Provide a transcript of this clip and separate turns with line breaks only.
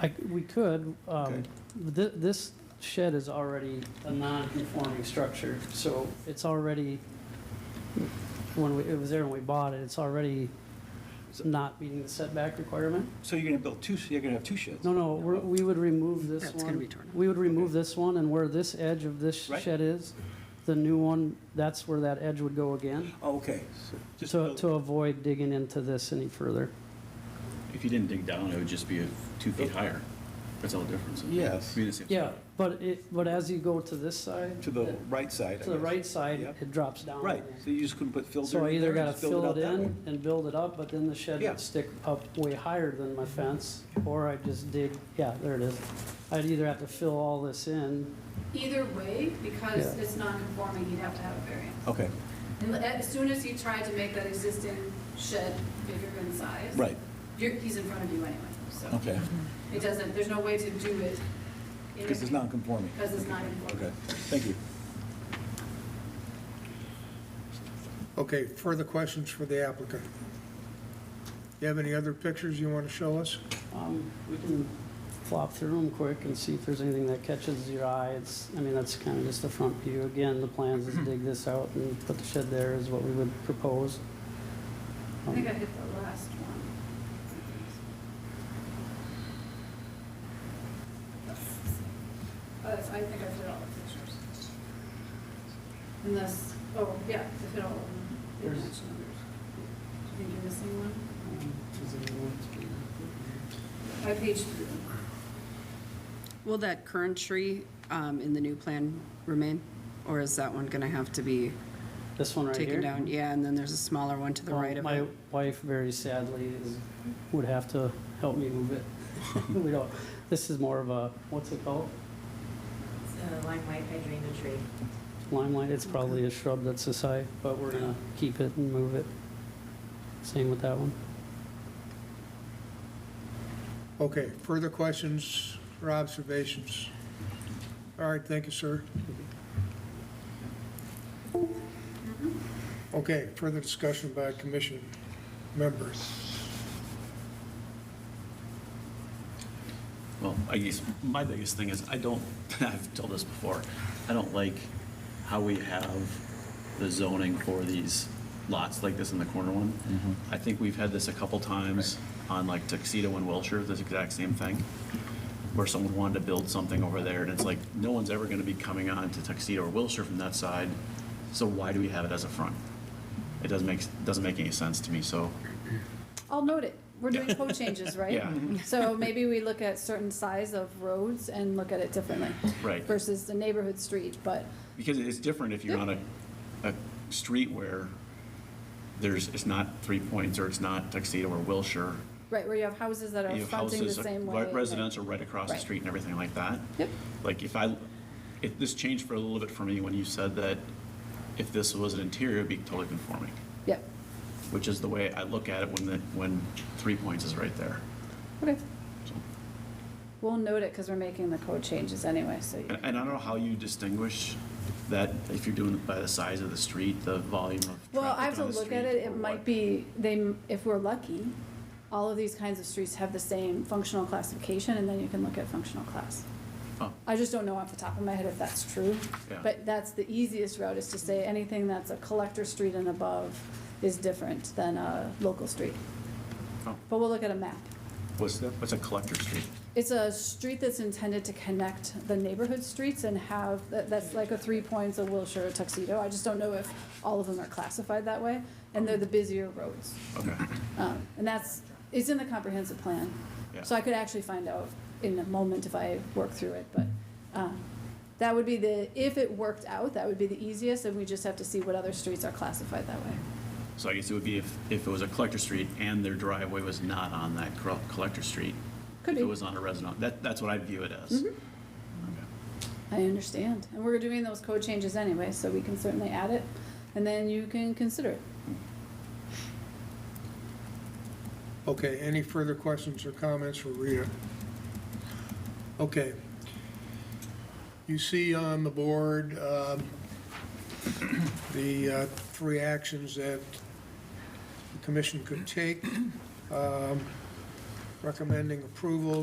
I, we could, um,
Okay.
thi- this shed is already a non-conforming structure, so it's already, when we, it was there when we bought it, it's already not meeting the setback requirement.
So you're gonna build two, you're gonna have two sheds?
No, no, we're, we would remove this one.
That's gonna be torn out.
We would remove
Okay.
this one, and where this edge of this
Right.
shed is, the new one, that's where that edge would go again,
Oh, Okay. so just
to,
build-
to avoid digging into this any further.
If you didn't dig down, it would just be a- two feet higher. That's all the difference.
Yes.
It'd be the same
Yeah,
size.
but it, but as you go to this side.
To the
it-
right side, I
To the
guess.
right side,
Yep.
it drops down.
Right, so you just couldn't put filter
So I
in
either
there,
gotta
just build
fill
it
it
out that way?
in and build it up, but then the shed
Yeah.
would stick up way higher than my fence, or I just dig, yeah, there it is. I'd either have to fill all this in,
Either way, because
Yeah.
it's non-conforming, he'd have to have a variance.
Okay,
And as soon as he tried to make that existing shed bigger in size.
right,
You're, he's in front of you anyway, so
okay,
it doesn't, there's no way to do it. in-
because it's non-conforming.
Because it's not conforming.
Okay, thank you.
Okay, further questions for the applicant? You have any other pictures you want to show us?
um, we can flop through them quick and see if there's anything that catches your eye. It's, I mean, that's kind of just the front view. Again, the plans is dig this out and put the shed there is what we would propose. Um,
I think I hit the last one. Oh, that's, I think I fit all the pictures. Unless, oh, yeah, I fit all of them. Didn't
There's-
mention others. I think you're missing one. By page three.
Will that current tree um, in the new plan remain? Or is that one going to have to be
This one right here.
taken down? Yeah, and then there's a smaller one to the
Well,
right of
My
it.
wife very sadly is, would have to help me move it. We don't, this is more of a, what's it called?
It's a lime white hydrangea tree.
Limelight, it's probably a shrub that's a site, but we're gonna keep it and move it. Same with that one.
Okay, further questions or observations? All right, thank you, sir. Okay, further discussion by commission members.
Well, I guess my biggest thing is I don't, I've told this before, I don't like how we have the zoning for these lots like this in the corner one. I think we've had this a couple times on like Tuxedo and Wilshire, this exact same thing, where someone wanted to build something over there and it's like, no one's ever going to be coming on to Tuxedo or Wilshire from that side. So why do we have it as a front? It doesn't make, doesn't make any sense to me, so
I'll note it. We're doing code changes, right?
Yeah.
So maybe we look at certain size of roads and look at it differently
Right.
versus the neighborhood street, but
Because it's different if you're on a, a street where there's, it's not Three Points, or it's not Tuxedo or Wilshire.
Right, where you have houses that are
You have
fronting the
houses,
same
re-
way. right.
Residential right across the
Right.
street and everything like that.
Yep.
Like if I, if this changed for a little bit for me when you said that if this was an interior, it'd be totally conforming,
Yep,
which is the way I look at it when the, when Three Points is right there.
okay.
So-
We'll note it because we're making the code changes anyway, so. you-
And, and I don't know how you distinguish that, if you're doing it by the size of the street, the volume of
Well, I
traffic
have to
on the
look at
street,
it,
or
it might
what.
be, they, m- if we're lucky, all of these kinds of streets have the same functional classification, and then you can look at functional class.
Oh.
I just don't know off the top of my head if that's true.
Yeah.
But that's the easiest route, is to say anything that's a collector street and above is different than a local street.
Oh.
But we'll look at a map.
What's, what's a collector street?
It's a street that's intended to connect the neighborhood streets and have, that- that's like a three points, a Wilshire, a Tuxedo. I just don't know if all of them are classified that way, and they're the busier roads.
Okay.
Um, And that's, it's in the comprehensive plan.
Yeah.
So I could actually find out in a moment if I work through it, but um, that would be the, if it worked out, that would be the easiest, and we just have to see what other streets are classified that way.
So I guess it would be if, if it was a collector street and their driveway was not on that cor- collector street.
Could
If it
be. Mm-hmm.
was on a resident, that, that's what I view it as. Okay.
I understand. And we're doing those code changes anyway, so we can certainly add it, and then you can consider it.
Okay, any further questions or comments for Rita? Okay. You see on the board um, the uh, three actions that the commission could take, um, recommending approval